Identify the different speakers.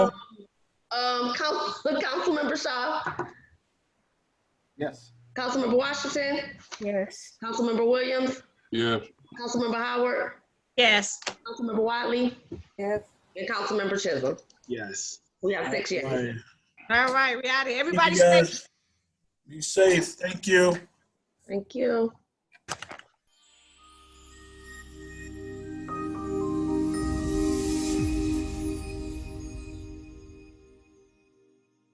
Speaker 1: Um, Council, Councilmember Shaw,
Speaker 2: Yes.
Speaker 1: Councilmember Washington,
Speaker 3: Yes.
Speaker 1: Councilmember Williams,
Speaker 4: Yeah,
Speaker 1: Councilmember Howard,
Speaker 3: Yes.
Speaker 1: Councilmember Wiley,
Speaker 3: Yes.
Speaker 1: and Councilmember Chisholm.
Speaker 2: Yes.
Speaker 1: We have six yeas.
Speaker 5: Right.
Speaker 3: All right, we out of here.
Speaker 5: Thank
Speaker 3: Everybody
Speaker 5: you
Speaker 3: stay.
Speaker 5: guys. Be safe. Thank you.
Speaker 1: Thank you.